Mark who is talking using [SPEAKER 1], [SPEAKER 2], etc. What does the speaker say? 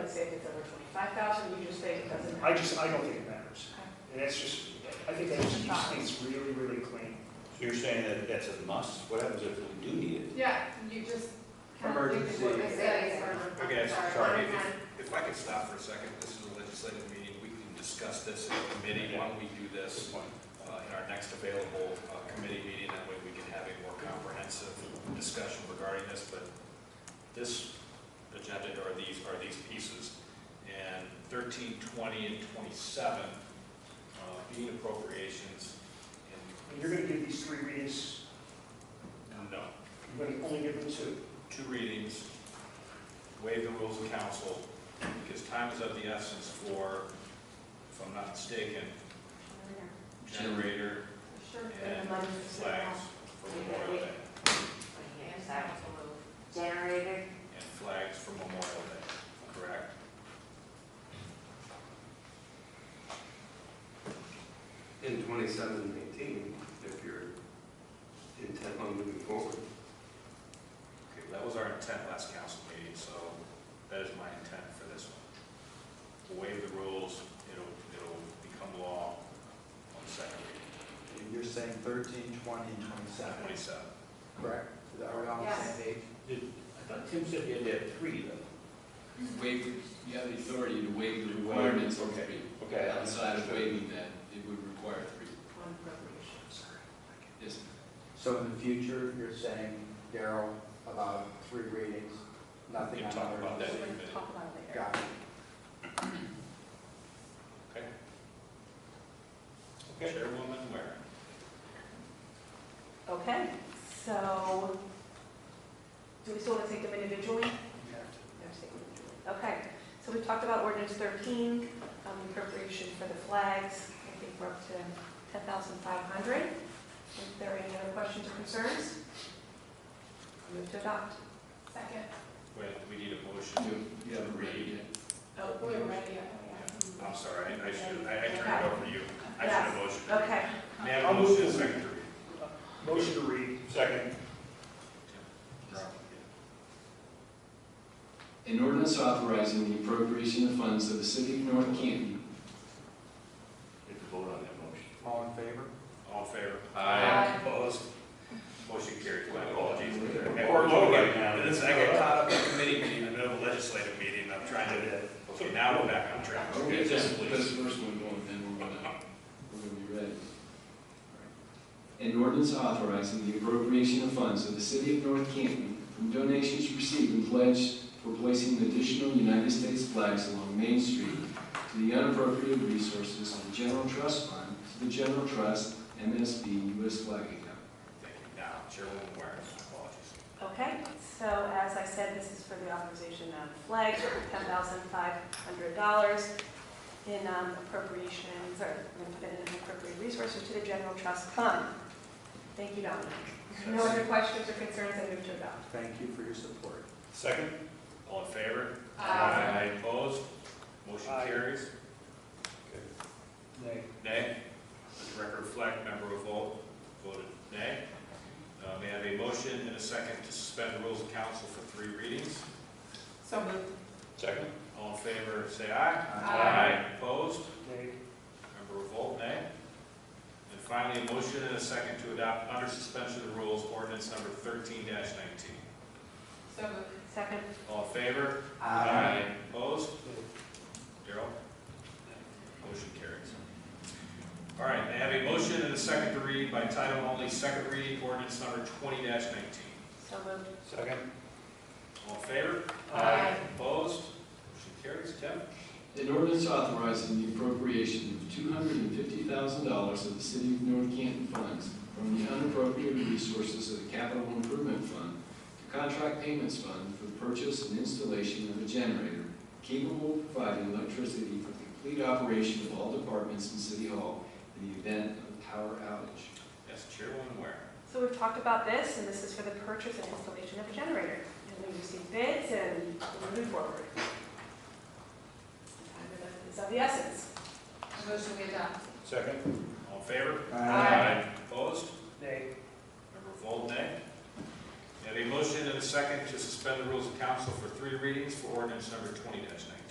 [SPEAKER 1] doesn't say if it's over twenty-five thousand, you just say it doesn't.
[SPEAKER 2] I just, I don't think it matters.
[SPEAKER 1] Okay.
[SPEAKER 2] And that's just, I think that just keeps things really, really clean.
[SPEAKER 3] So you're saying that that's a must? What happens if we do need it?
[SPEAKER 1] Yeah, you just kind of think of
[SPEAKER 4] Emergency.
[SPEAKER 1] what they say.
[SPEAKER 5] I guess, sorry,
[SPEAKER 4] Sorry.
[SPEAKER 5] if I could stop for a second, this is a legislative meeting, we can discuss this in committee, why don't we do this uh, in our next available uh, committee meeting, that way we can have a more comprehensive discussion regarding this, but this agenda are these, are these pieces, and thirteen, twenty, and twenty-seven uh, being appropriations,
[SPEAKER 2] And you're gonna give these three readings,
[SPEAKER 5] and no,
[SPEAKER 2] you're gonna only give them two.
[SPEAKER 5] two readings, waive the rules of council, because time is of the essence for, if I'm not mistaken, generator
[SPEAKER 1] Sure.
[SPEAKER 5] and flags for Memorial Day,
[SPEAKER 4] Generator,
[SPEAKER 5] and flags for Memorial Day, correct?
[SPEAKER 6] In twenty-seven nineteen, if you're intent on moving forward.
[SPEAKER 5] Okay, that was our intent last council meeting, so that is my intent for this one. Waive the rules, it'll, it'll become law on the second reading,
[SPEAKER 7] And You're saying thirteen, twenty, and twenty-seven,
[SPEAKER 5] twenty-seven.
[SPEAKER 7] correct? Are we on the
[SPEAKER 1] Yes.
[SPEAKER 7] same page?
[SPEAKER 3] I thought Tim said you had to have three though.
[SPEAKER 8] You waive, you have the authority to waive the requirements of three.
[SPEAKER 3] Okay.
[SPEAKER 8] Outside of waiving that, it would require three.
[SPEAKER 1] On appropriations.
[SPEAKER 8] Yes,
[SPEAKER 7] So in the future, you're saying, Daryl, about three readings, nothing
[SPEAKER 5] We
[SPEAKER 7] on
[SPEAKER 5] can talk
[SPEAKER 7] other.
[SPEAKER 5] about that in a
[SPEAKER 1] We're
[SPEAKER 5] minute.
[SPEAKER 1] gonna talk about it later.
[SPEAKER 7] Got it.
[SPEAKER 5] Chairwoman Waring.
[SPEAKER 1] Okay, so, do we still want to take them individually?
[SPEAKER 7] You have to-
[SPEAKER 1] Yes, they would. Okay, so we talked about ordinance 13, um, appropriation for the flags. I think we're up to 10,500. If there are any other questions or concerns, I move to adopt. Second.
[SPEAKER 5] Wait, we need a motion.
[SPEAKER 8] you you haven't read it yet.
[SPEAKER 1] Oh, we're ready.
[SPEAKER 5] I'm sorry, I I should, I I turned it over to you. I should have motioned.
[SPEAKER 1] Okay,
[SPEAKER 5] May I have a
[SPEAKER 2] I'll move
[SPEAKER 5] motion,
[SPEAKER 2] this.
[SPEAKER 5] second to read?
[SPEAKER 2] Motion to read.
[SPEAKER 5] Second.
[SPEAKER 8] An ordinance authorizing the appropriation of funds of the city of North Canton.
[SPEAKER 3] If you vote on that motion.
[SPEAKER 7] All in favor?
[SPEAKER 5] All in favor?
[SPEAKER 1] Aye.
[SPEAKER 5] Opposed? Motion carried, my apologies.
[SPEAKER 3] We're
[SPEAKER 5] Or vote
[SPEAKER 3] voting
[SPEAKER 5] again.
[SPEAKER 3] now.
[SPEAKER 5] And this- I got caught up in committee meeting, in the middle of a legislative meeting, I'm trying to, okay, now we're back on track.
[SPEAKER 8] Okay,
[SPEAKER 5] Yes,
[SPEAKER 8] just put this
[SPEAKER 5] please.
[SPEAKER 8] first one going, then we're gonna, we're gonna be ready. An ordinance authorizing the appropriation of funds of the city of North Canton from donations received and pledged for placing additional United States flags along Main Street to the unappropriated resources on the general trust fund to the general trust MSB US flag account.
[SPEAKER 5] Thank you. Now, Chairwoman Waring, my apologies.
[SPEAKER 1] okay. So as I said, this is for the authorization of flags, $10,500 in um, appropriations, or we're gonna put it in appropriate resources to the general trust fund. Thank you, Dominic. No other questions or concerns, I move to adopt.
[SPEAKER 7] Thank you for your support.
[SPEAKER 5] Second? All in favor? Opposed? Motion
[SPEAKER 2] Aye.
[SPEAKER 5] carries.
[SPEAKER 7] Nay.
[SPEAKER 5] Nay. Let the record reflect, member of vote voted nay. Uh, May I have a motion and a second to suspend the rules of council for three readings?
[SPEAKER 1] So moved.
[SPEAKER 3] Second.
[SPEAKER 5] All in favor, say aye.
[SPEAKER 1] Aye.
[SPEAKER 5] Opposed?
[SPEAKER 2] Okay.
[SPEAKER 5] Member of vote nay. And finally, a motion and a second to adopt under suspension of the rules ordinance number thirteen nineteen.
[SPEAKER 1] So moved. Second.
[SPEAKER 5] All in favor?
[SPEAKER 7] Aye.
[SPEAKER 5] Opposed? Daryl? Motion carries. All right, I have a motion and a second to read by title only, second reading ordinance number twenty nineteen.
[SPEAKER 1] So moved.
[SPEAKER 3] Second.
[SPEAKER 5] All in favor?
[SPEAKER 1] Aye.
[SPEAKER 5] Opposed? Motion carries. Tim?
[SPEAKER 8] An ordinance authorizing the appropriation of two hundred and fifty thousand dollars of the City of North Canton funds from the unappropriated resources of the Capital Improvement Fund to Contract Payments Fund for the purchase and installation of a generator capable of providing electricity for the complete operation of all departments in City Hall in the event of a power outage.
[SPEAKER 5] Yes, Chairwoman Ware.
[SPEAKER 1] So we've talked about this, and this is for the purchase and installation of a generator. And we received bids and we're moving forward. Time is of the essence. Motion we adopt.
[SPEAKER 3] Second.
[SPEAKER 5] All in favor?
[SPEAKER 1] Aye.
[SPEAKER 5] Opposed?
[SPEAKER 2] Nay.
[SPEAKER 5] Member Vold, nay. May I have a motion and a second to suspend the rules of council for three readings for ordinance number twenty nineteen?